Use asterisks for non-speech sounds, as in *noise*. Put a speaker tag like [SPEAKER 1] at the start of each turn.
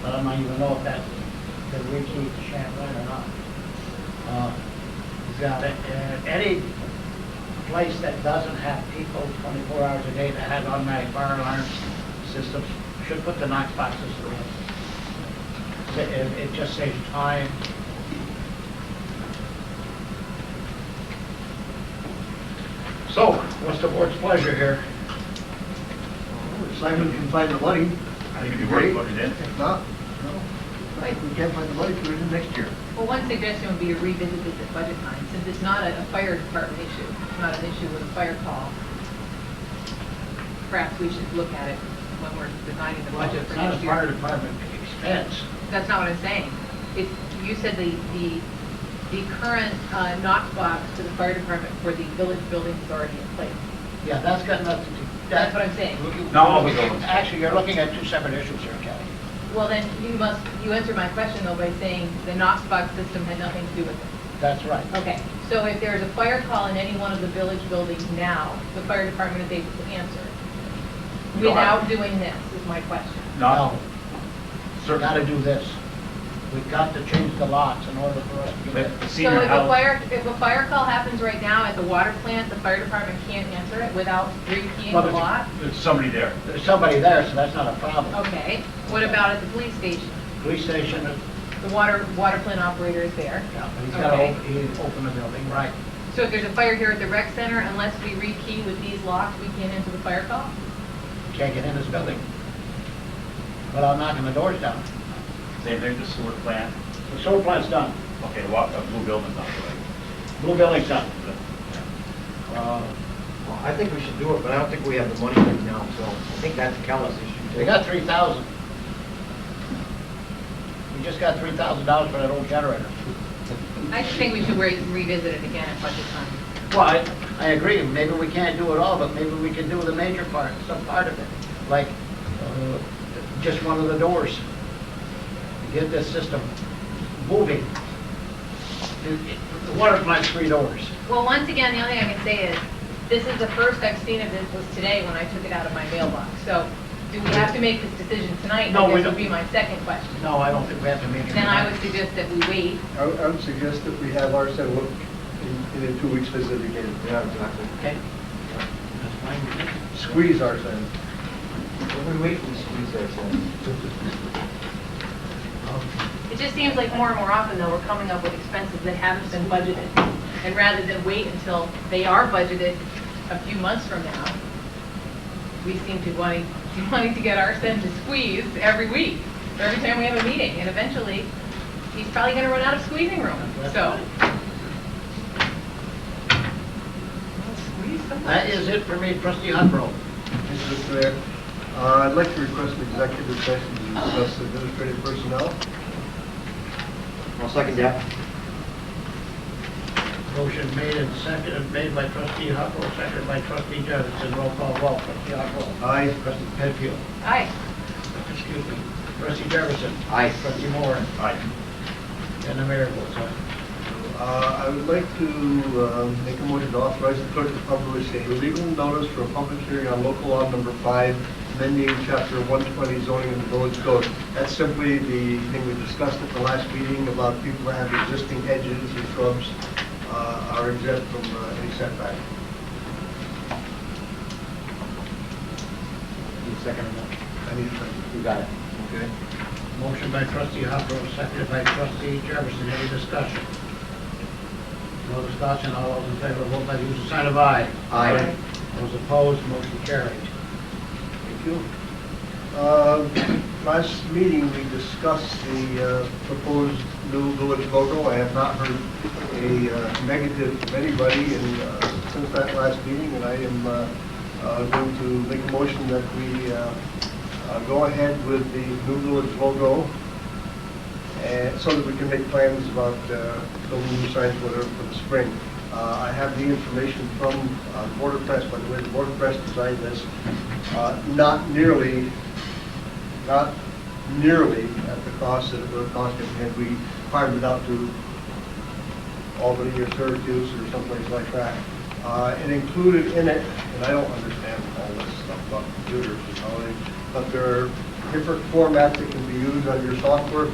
[SPEAKER 1] I don't even know if that, the Ritchie Champlain or not. Uh, Got it. Uh, Any place that doesn't have people twenty-four hours a day that has automatic fire alarm systems should put the Knox boxes to rest. It, it- it just saves time. So, what's the board's pleasure here?
[SPEAKER 2] Simon can find the money.
[SPEAKER 3] I think it'd be worth looking into.
[SPEAKER 2] If not, no. Right, we can't find the money for it next year.
[SPEAKER 4] Well, one suggestion would be to revisit this at budget time, since it's not a a fire department issue, it's not an issue with a fire call. Perhaps we should look at it when we're designing the budget
[SPEAKER 1] It's
[SPEAKER 4] for
[SPEAKER 1] not a
[SPEAKER 4] next
[SPEAKER 1] fire
[SPEAKER 4] year.
[SPEAKER 1] department expense.
[SPEAKER 4] That's not what I'm saying. It's, you said the, the, the current uh, knock box to the fire department for the village building is already in place.
[SPEAKER 1] Yeah, that's got nothing to do.
[SPEAKER 4] That's what I'm saying.
[SPEAKER 3] No, all the buildings.
[SPEAKER 1] Actually, you're looking at two separate issues here, Kelly.
[SPEAKER 4] Well, then, you must, you answered my question though by saying the knock box system had nothing to do with it.
[SPEAKER 1] That's right.
[SPEAKER 4] Okay, so if there's a fire call in any one of the village buildings now, the fire department is able to answer
[SPEAKER 3] No, I-
[SPEAKER 4] without doing this, is my question.
[SPEAKER 3] Not,
[SPEAKER 1] We gotta
[SPEAKER 3] certainly.
[SPEAKER 1] do this. We've got to change the lots in order for us to
[SPEAKER 3] But
[SPEAKER 1] get it.
[SPEAKER 3] the
[SPEAKER 4] So
[SPEAKER 3] senior
[SPEAKER 4] if a
[SPEAKER 3] housing,
[SPEAKER 4] fire, if a fire call happens right now at the water plant, the fire department can't answer it without rekeying
[SPEAKER 1] Well,
[SPEAKER 4] the
[SPEAKER 1] it's-
[SPEAKER 4] lot?
[SPEAKER 3] there's somebody there.
[SPEAKER 1] There's somebody there, so that's not a problem.
[SPEAKER 4] Okay, what about at the police station?
[SPEAKER 1] Police station, uh,
[SPEAKER 4] The water, water plant operator is there.
[SPEAKER 1] yeah, he's gotta,
[SPEAKER 4] Okay.
[SPEAKER 1] op- he open the building, right.
[SPEAKER 4] So if there's a fire here at the rec center, unless we rekey with these locks, we can't answer the fire call?
[SPEAKER 1] Can't get in his building. But I'm knocking the doors down.
[SPEAKER 3] Same thing, the sewer plant.
[SPEAKER 1] The sewer plant's done,
[SPEAKER 3] Okay, walk, a blue building, by the
[SPEAKER 1] blue building's done.
[SPEAKER 3] way.
[SPEAKER 1] Uh,
[SPEAKER 5] Well, I think we should do it, but I don't think we have the money right now, so I think that's Kellis issue.
[SPEAKER 1] They got three thousand. We just got three thousand dollars for that old generator.
[SPEAKER 4] I think we should re- revisit it again at budget time.
[SPEAKER 1] Well, I- I agree, maybe we can't do it all, but maybe we can do the major part, some part of it, like uh, just one of the doors. Get this system moving. The- The water plant's three doors.
[SPEAKER 4] Well, once again, the only thing I can say is, this is the first I've seen of this was today when I took it out of my mailbox. So do we have to make this decision tonight?
[SPEAKER 1] No, we
[SPEAKER 4] This
[SPEAKER 1] don't.
[SPEAKER 4] would be my second question.
[SPEAKER 1] No, I don't think we have to make it.
[SPEAKER 4] Then I would suggest that we wait.
[SPEAKER 2] I would, I would suggest that we have ours set up and in two weeks visit again.
[SPEAKER 5] Yeah, exactly.
[SPEAKER 1] Okay. That's fine with me.
[SPEAKER 2] Squeeze ours in.
[SPEAKER 5] What we wait for the squeeze there, so.
[SPEAKER 4] It just seems like more and more often, though, we're coming up with expenses that haven't been budgeted. And rather than wait until they are budgeted a few months from now, we seem to *laughs* wanting, wanting to get our end squeezed every week, or every time we have a meeting. And eventually, he's probably going to run out of squeezing room, so. Squeeze some.
[SPEAKER 1] That is it for me, trustee Huckrow.
[SPEAKER 2] Mr. Mayor, uh, I'd like to request an executive session to discuss administrative personnel.
[SPEAKER 5] I'll second that.
[SPEAKER 1] Motion made and seconded, made by trustee Huckrow, seconded by trustee Jefferson, roll call, roll, trustee Huckrow.
[SPEAKER 2] Aye.
[SPEAKER 1] Trustee Penfield.
[SPEAKER 4] Aye.
[SPEAKER 1] Excuse me, trustee Jefferson.
[SPEAKER 5] Aye.
[SPEAKER 1] Trustee Moore,
[SPEAKER 3] Aye.
[SPEAKER 1] and the mayor votes aye.
[SPEAKER 2] Uh, I would like to uh, make a motion to authorize the clerk to publish a legal notice for a public hearing on local law number five, amending chapter 120 zoning in the village code. That's simply the thing we discussed at the last meeting about people that have existing hedges or shrubs uh, are exempt from uh, any setback.
[SPEAKER 5] You second that?
[SPEAKER 2] I need a second.
[SPEAKER 5] You got it.
[SPEAKER 2] Okay.
[SPEAKER 1] Motion by trustee Huckrow, seconded by trustee Jefferson, any discussion? No discussion, all those in favor, vote by the usual sign of aye.
[SPEAKER 5] Aye.
[SPEAKER 1] Those opposed, motion carried. Thank you.
[SPEAKER 2] Uh, Last meeting, we discussed the uh, proposed new village logo. I have not heard a uh, negative from anybody in, uh, since that last meeting, and I am uh, uh, going to make a motion that we uh, uh, go ahead with the new village logo, and uh, so that we can make plans about uh, building new signs, whatever, for the spring. Uh, I have the information from uh, Border Press, by the way, the Border Press designed this, uh, not nearly not nearly at the cost that it would have cost him had we farmed it out to Albany or Syracuse or someplace like that. Uh, It included in it, and I don't understand all this stuff about computers and all that, but there are different formats that can be used on your software